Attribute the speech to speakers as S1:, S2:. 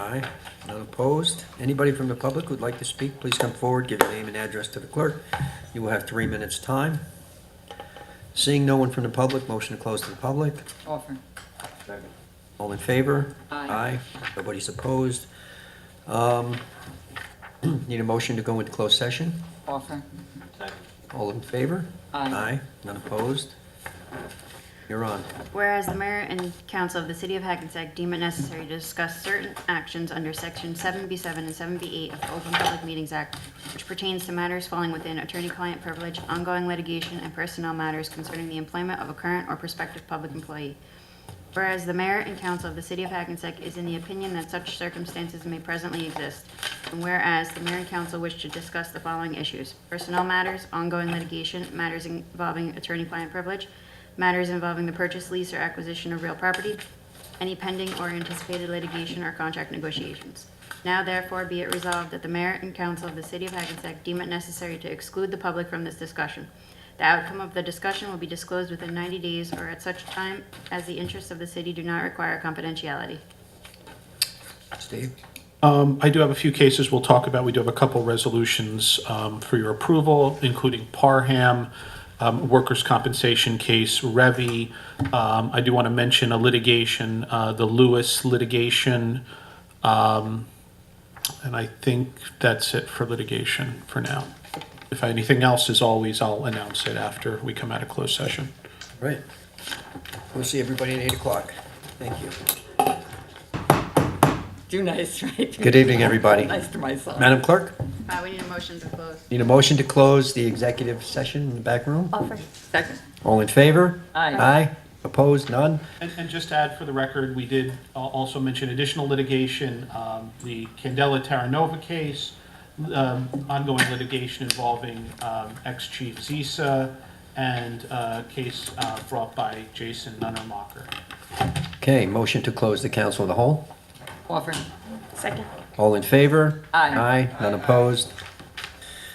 S1: Aye, none opposed. Anybody from the public who'd like to speak, please come forward, give your name and address to the clerk. You will have three minutes' time. Seeing no one from the public, motion to close to the public.
S2: Offer.
S1: All in favor?
S2: Aye.
S1: Aye, nobody's opposed. Um, Need a motion to go into closed session?
S2: Offer.
S1: All in favor?
S2: Aye.
S1: Aye, none opposed. You're on.
S3: Whereas the mayor and council of the city of Hackensack deem it necessary to discuss certain actions under section seven B seven and seven B eight of the Open Public Meetings Act, which pertains to matters falling within attorney-client privilege, ongoing litigation, and personnel matters concerning the employment of a current or prospective public employee. Whereas the mayor and council of the city of Hackensack is in the opinion that such circumstances may presently exist. And whereas the mayor and council wish to discuss the following issues: personnel matters, ongoing litigation, matters involving attorney-client privilege, matters involving the purchase, lease, or acquisition of real property, any pending or anticipated litigation or contract negotiations. Now therefore be it resolved that the mayor and council of the city of Hackensack deem it necessary to exclude the public from this discussion. The outcome of the discussion will be disclosed within 90 days or at such time as the interests of the city do not require confidentiality.
S1: Steve?
S4: Um, I do have a few cases we'll talk about. We do have a couple resolutions um, for your approval, including Parham, um, workers' compensation case, Revy. Um, I do want to mention a litigation, uh, the Lewis litigation. Um, and I think that's it for litigation for now. If anything else, as always, I'll announce it after we come out of closed session.
S1: Right. We'll see everybody at 8 o'clock. Thank you.
S2: Do nice, right?
S1: Good evening, everybody.
S2: Nice to myself.
S1: Madam Clerk,
S3: Uh, we need a motion to close.
S1: need a motion to close the executive session in the back room?
S3: Offer.
S2: Second.
S1: All in favor?
S2: Aye.
S1: Aye, opposed, none?
S4: And, and just to add for the record, we did al- also mention additional litigation, um, the Candela Terranova case, um, ongoing litigation involving, um, ex-chief Zisa, and a case, uh, brought by Jason Nunnermacher.
S1: Okay, motion to close the council of the whole?
S2: Offer.
S3: Second.
S1: All in favor?
S2: Aye.
S1: Aye, none opposed?